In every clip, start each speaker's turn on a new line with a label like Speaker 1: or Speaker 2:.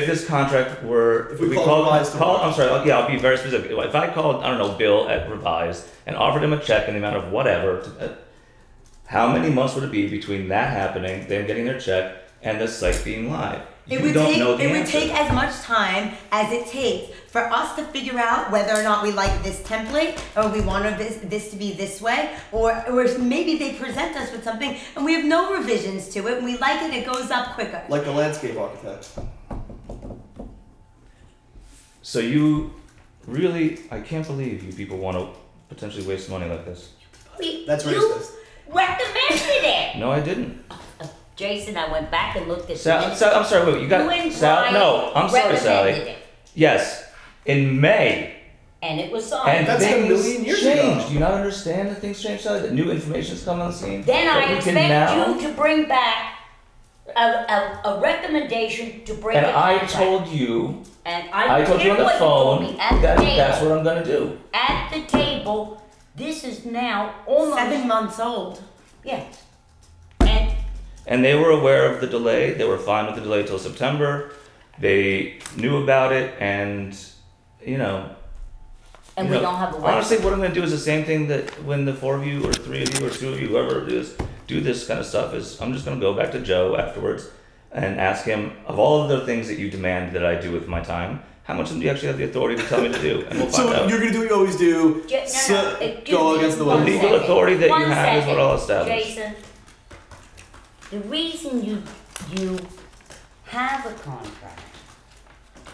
Speaker 1: If this contract were, if
Speaker 2: we
Speaker 1: we
Speaker 2: call
Speaker 1: called,
Speaker 2: Revised
Speaker 1: call,
Speaker 2: tomorrow.
Speaker 1: I'm sorry, like, yeah, I'll be very specific. If I called, I don't know, Bill at Revised and offered him a check in the amount of whatever, to- uh, how many months would it be between that happening, them getting their check, and the site being live?
Speaker 3: It
Speaker 1: You
Speaker 3: would
Speaker 1: don't
Speaker 3: take,
Speaker 1: know the
Speaker 3: it would
Speaker 1: answer.
Speaker 3: take as much time as it takes for us to figure out whether or not we like this template or we want this, this to be this way or, or if maybe they present us with something and we have no revisions to it and we like it, it goes up quicker.
Speaker 2: Like the landscape architect.
Speaker 1: So you really, I can't believe you people want to potentially waste money like this.
Speaker 4: We,
Speaker 2: That's
Speaker 4: you
Speaker 2: racist.
Speaker 4: recommended it.
Speaker 1: No, I didn't.
Speaker 4: Jason, I went back and looked at
Speaker 1: Sal,
Speaker 4: the
Speaker 1: Sal, I'm sorry, wait, you got
Speaker 4: You and
Speaker 1: Sal.
Speaker 4: Brian
Speaker 1: No, I'm sorry,
Speaker 4: recommended
Speaker 1: Sally.
Speaker 4: it,
Speaker 1: Yes, in May.
Speaker 4: And it was signed.
Speaker 1: And
Speaker 2: That's
Speaker 1: things
Speaker 2: a million years
Speaker 1: changed.
Speaker 2: ago.
Speaker 1: Do you not understand that things change, Sally? That new information's come on the scene.
Speaker 4: Then
Speaker 1: that
Speaker 4: I
Speaker 1: we can
Speaker 4: expect
Speaker 1: now.
Speaker 4: you to bring back a, a, a recommendation to bring
Speaker 1: And
Speaker 4: it
Speaker 1: I
Speaker 4: back.
Speaker 1: told you,
Speaker 4: and
Speaker 1: I told you on
Speaker 4: hear
Speaker 1: the
Speaker 4: what
Speaker 1: phone
Speaker 4: you told me at
Speaker 1: that
Speaker 4: the table.
Speaker 1: that's what I'm gonna do.
Speaker 4: at the table. This is now almost
Speaker 3: Seven months old.
Speaker 4: Yeah, and
Speaker 1: And they were aware of the delay. They were fine with the delay till September. They knew about it, and you know.
Speaker 4: and
Speaker 1: you
Speaker 4: we
Speaker 1: know,
Speaker 4: don't have a website.
Speaker 1: Honestly, what I'm gonna do is the same thing that when the four of you, or three of you, or two of you, whoever it is, do this kind of stuff. Is I'm just gonna go back to Joe afterwards and ask him of all of the things that you demand that I do with my time. How much of them do you actually have the authority to tell me to do? And we'll find
Speaker 2: So
Speaker 1: out.
Speaker 2: you're gonna do what you always do.
Speaker 4: Ja- no, no,
Speaker 2: sit-
Speaker 4: it- give
Speaker 2: go
Speaker 4: me
Speaker 2: against the
Speaker 4: one
Speaker 2: wall.
Speaker 1: The legal
Speaker 4: second.
Speaker 1: authority that you
Speaker 4: One
Speaker 1: have is what I'll
Speaker 4: second,
Speaker 1: establish.
Speaker 4: Jason, the reason you, you have a contract,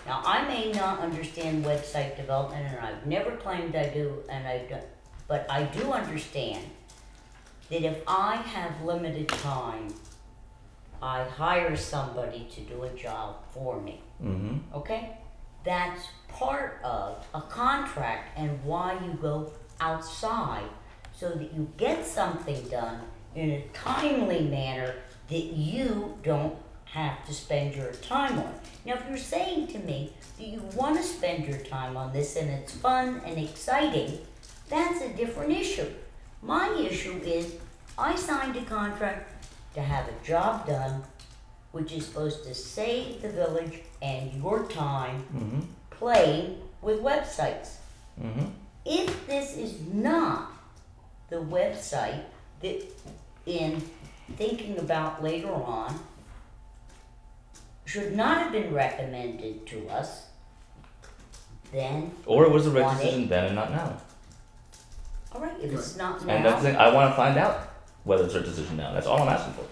Speaker 4: now I may not understand website development and I've never claimed I do and I don't, but I do understand that if I have limited time, I hire somebody to do a job for me
Speaker 1: Mm-hmm.
Speaker 4: okay? That's part of a contract and why you go outside so that you get something done in a timely manner that you don't have to spend your time on. Now, if you're saying to me that you want to spend your time on this and it's fun and exciting, that's a different issue. My issue is I signed a contract to have a job done which is supposed to save the village and your time
Speaker 1: Mm-hmm.
Speaker 4: playing with websites.
Speaker 1: Mm-hmm.
Speaker 4: If this is not the website that in thinking about later on should not have been recommended to us, then
Speaker 1: Or it was the right
Speaker 4: Want it?
Speaker 1: decision then and not now.
Speaker 4: all right, if it's not
Speaker 1: And that's the thing.
Speaker 4: now,
Speaker 1: I want to find out whether it's our decision now. That's all I'm asking for.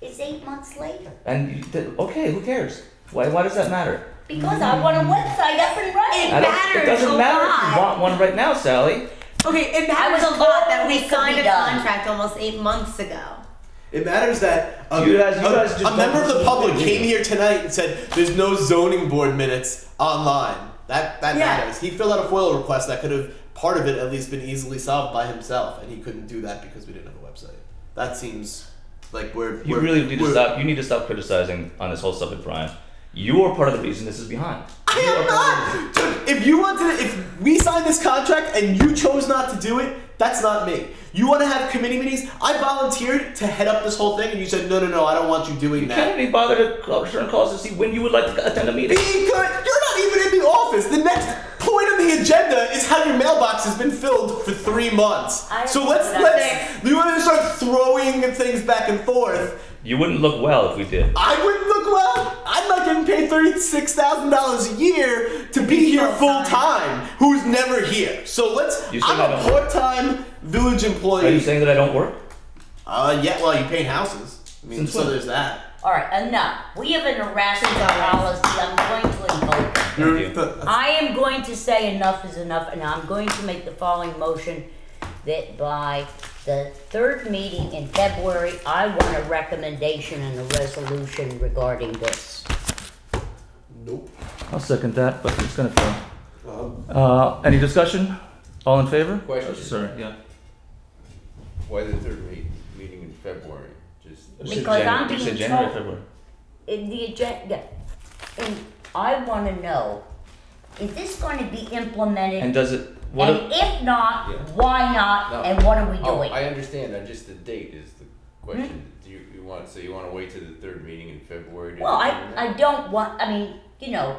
Speaker 4: it's eight months later.
Speaker 1: And you, th- okay, who cares? Why? Why does that matter?
Speaker 4: Because I want a website up and running.
Speaker 1: I don't-
Speaker 3: Matters
Speaker 1: it doesn't
Speaker 3: a
Speaker 1: matter if you want
Speaker 3: lot.
Speaker 1: one right now, Sally.
Speaker 3: Okay, it
Speaker 4: I
Speaker 3: matters
Speaker 4: was
Speaker 3: a lot that
Speaker 4: told it
Speaker 3: we
Speaker 4: could
Speaker 3: signed
Speaker 4: be
Speaker 3: a
Speaker 4: done.
Speaker 3: contract almost eight months ago.
Speaker 2: It matters that a,
Speaker 1: You guys- you
Speaker 2: a-
Speaker 1: guys just
Speaker 2: a
Speaker 1: don't
Speaker 2: member of
Speaker 1: listen
Speaker 2: the
Speaker 1: to
Speaker 2: public
Speaker 1: me.
Speaker 2: came here tonight and said there's no zoning board minutes online. That that
Speaker 3: Yeah.
Speaker 2: matters. He filled out a FOIL request that could have part of it at least been easily solved by himself, and he couldn't do that because we didn't have a website. That seems like we're
Speaker 1: You
Speaker 2: we're-
Speaker 1: really need to
Speaker 2: we're-
Speaker 1: stop. You need to stop criticizing on this whole subject, Brian. You are part of the reason this is behind.
Speaker 2: I am not. Dude, if you want to, if we signed this contract and you chose not to do it, that's not me. You want to have committee meetings? I volunteered to head up this whole thing, and you said no, no, no, I don't want you doing
Speaker 1: You
Speaker 2: that.
Speaker 1: can't be bothered to call return calls to see when you would like to attend a meeting.
Speaker 2: Being good, you're not even in the office. The next point on the agenda is how your mailbox has been filled for three months.
Speaker 4: I
Speaker 2: so
Speaker 4: don't
Speaker 2: let's
Speaker 4: know.
Speaker 2: let's. You want to start throwing things back and forth?
Speaker 1: You wouldn't look well if we did.
Speaker 2: I wouldn't look well. I'm not getting paid thirty-six thousand dollars a year to be here full time. Who's never here? So let's.
Speaker 1: You said
Speaker 2: I'm
Speaker 1: I
Speaker 2: a
Speaker 1: don't work.
Speaker 2: part-time village
Speaker 1: Are you
Speaker 2: employee.
Speaker 1: saying that I don't work?
Speaker 2: Uh, yeah. Well, you paint houses. I mean,
Speaker 1: Since
Speaker 2: so
Speaker 1: when?
Speaker 2: there's that.
Speaker 4: All right, enough. We have an harassment policy. I'm going to invoke it.
Speaker 1: Thank
Speaker 2: You're-
Speaker 1: you.
Speaker 2: the-
Speaker 4: I am going to say enough is enough, and I'm going to make the following motion that by the third meeting in February, I want a recommendation and a resolution regarding this.
Speaker 2: Nope.
Speaker 1: I'll second that, but it's gonna fail.
Speaker 2: Um,
Speaker 1: Uh, any discussion? All in favor? Oh,
Speaker 5: Question.
Speaker 1: Sorry. Yeah.
Speaker 5: Why the third meet, meeting in February? Just
Speaker 1: You said
Speaker 4: Because
Speaker 1: Janu-
Speaker 4: I'm
Speaker 1: you said
Speaker 4: being
Speaker 1: January,
Speaker 4: told-
Speaker 1: February.
Speaker 4: In the agenda, and I want to know, is this going to be implemented?
Speaker 1: And does it? What?
Speaker 4: And if not,
Speaker 5: Yeah.
Speaker 4: why not,
Speaker 5: No.
Speaker 4: and what are we
Speaker 5: oh,
Speaker 4: doing?
Speaker 5: I understand. I just the date is the
Speaker 4: Hmm?
Speaker 5: question. Do you, you want so you want to wait to the third meeting in February? To
Speaker 4: Well, I,
Speaker 5: determine that?
Speaker 4: I don't want, I mean, you know,